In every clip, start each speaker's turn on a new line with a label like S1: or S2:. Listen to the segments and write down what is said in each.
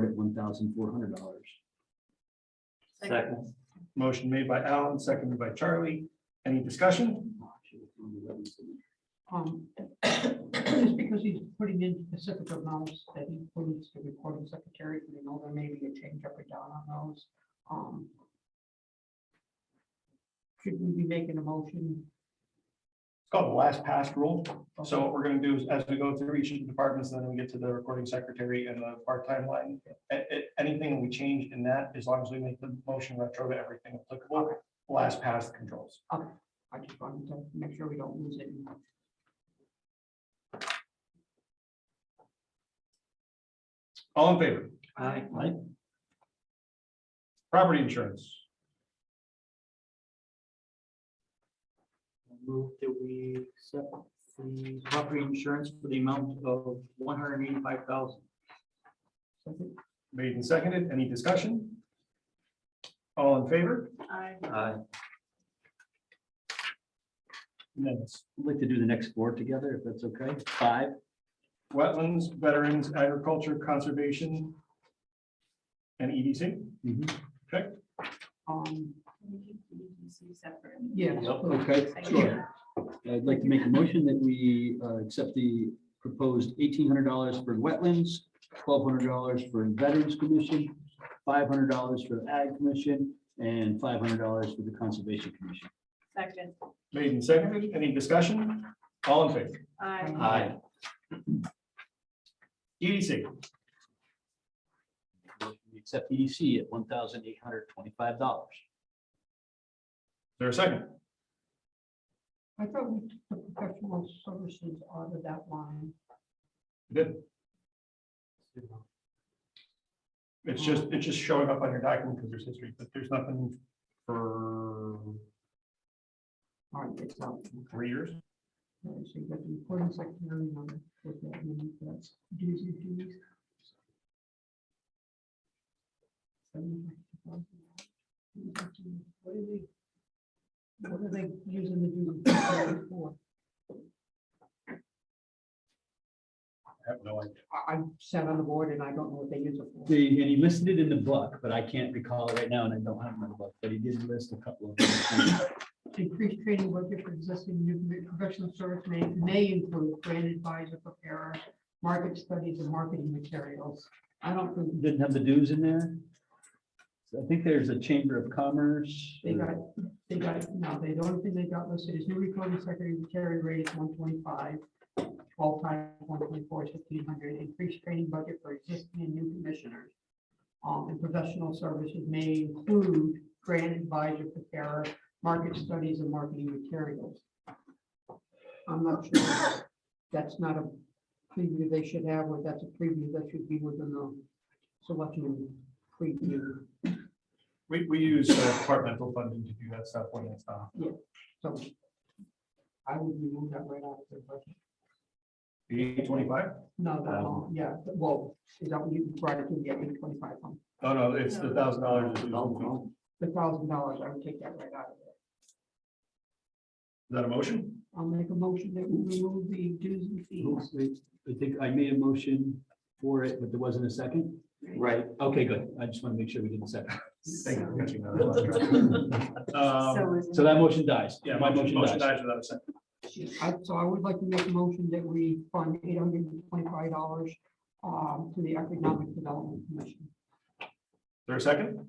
S1: at one thousand four hundred dollars.
S2: Second.
S3: Motion made by Alan, seconded by Charlie. Any discussion?
S4: Um, Just because he's putting in specific amounts that he includes the recording secretary, we know there may be a change up or down on those. Um. Should we be making a motion?
S3: It's called the last past rule. So what we're gonna do is as we go through each of the departments, then we get to the recording secretary and the part-time line. A- a- anything we change in that, as long as we make the motion retro to everything applicable, last past controls.
S4: I just wanted to make sure we don't lose it.
S3: All in favor?
S2: Aye.
S3: Aye. Property insurance.
S2: Move that we accept the property insurance for the amount of one hundred and eighty-five thousand.
S3: Made and seconded. Any discussion? All in favor?
S4: I
S1: Uh,
S2: Aye.
S3: Unanimous.
S1: I'd like to do the next four together, if that's okay. Five,
S3: Wetlands, Veterans, Agriculture, Conservation, and E EDC.
S2: Mm-hmm.
S4: Um,
S5: separate.
S4: yes. please.
S1: okay, sure. I'd like to make a motion that we uh, accept the proposed eighteen hundred dollars for wetlands, twelve hundred dollars for Veterans Commission, five hundred dollars for the Ag Commission, and five hundred dollars for the Conservation Commission.
S5: Second,
S3: Made and seconded. Any discussion? All in favor?
S5: I,
S2: Aye.
S3: EDC.
S1: We accept EDC at one thousand eight hundred twenty-five dollars.
S3: There a second?
S4: I thought we took the professional services out of that line.
S3: Good. It's just, it's just showing up on your document because there's history, but there's nothing for
S4: All right, it's out.
S3: three years.
S4: All right, So you got the recording secretary number. with that, and then that's dues and fees. What are they? What are they using the dues and fees salary for?
S3: I have no idea.
S4: I, I sat on the board and I don't know what they use it for.
S1: They, and he listed it in the book, but I can't recall it right now, and I don't have my book, but he did list a couple of. them.
S4: Increased training budget for existing new commi- professional service may, may include brand advisor, preparer, market studies and marketing materials. I don't think
S1: Didn't have the dues in there. So I think there's a Chamber of Commerce.
S4: They got, they got, no, they, the only thing they got listed is new recording secretary carry rate is one twenty-five. Twelve times one twenty-four is fifteen hundred, increased training budget for existing and new commissioners. Um, and professional services may include grant advisor preparer, market studies and marketing materials. I'm not sure, that's not a preview they should have, or that's a preview that should be within the selection preview.
S3: We, we use uh, departmental funding to do that stuff when it's not.
S4: So I would remove that right off the budget.
S3: The eight twenty-five?
S4: No, that,
S1: Um,
S4: won't- yeah, but- well, is that what you brought it to the eight twenty-five from?
S3: No, no, it's the thousand dollars. Is
S1: No,
S4: The thousand dollars, I would take that right out of there.
S3: that a motion?
S4: I'll make a motion that we remove the dues and fees.
S1: no. I think I made a motion for it, but there wasn't a second. Right. Okay, good. I just want to make sure we didn't second.
S3: Thank you for catching that. Um,
S5: so is,
S1: So that motion dies.
S3: Yeah,
S1: My motion dies.
S3: dies without a second.
S4: I, so I would like to make a motion that we fund eight hundred and twenty-five dollars um, to the Economic Development Commission.
S3: There a second?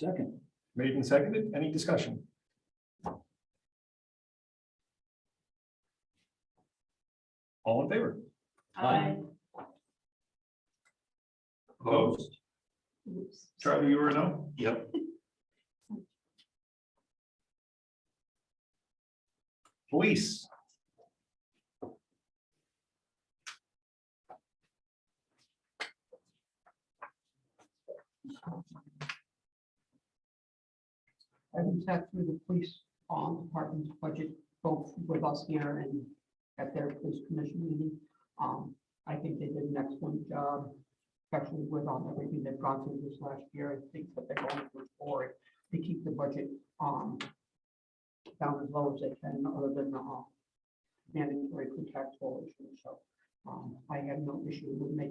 S1: Second.
S3: Made and seconded. Any discussion? All in favor?
S5: I,
S3: Opposed?
S5: oops.
S3: Charlie, you were a no?
S2: Yep.
S3: Police.
S4: Having sat through the police um, department's budget, both with us here and at their police commission meeting. Um, I think they did an excellent job, especially with um, everything they've gone through this last year. I think that they're going through forward to keep the budget um, down as low as they can, other than the um, mandatory pre-tax issues. So Um, I have no issue with making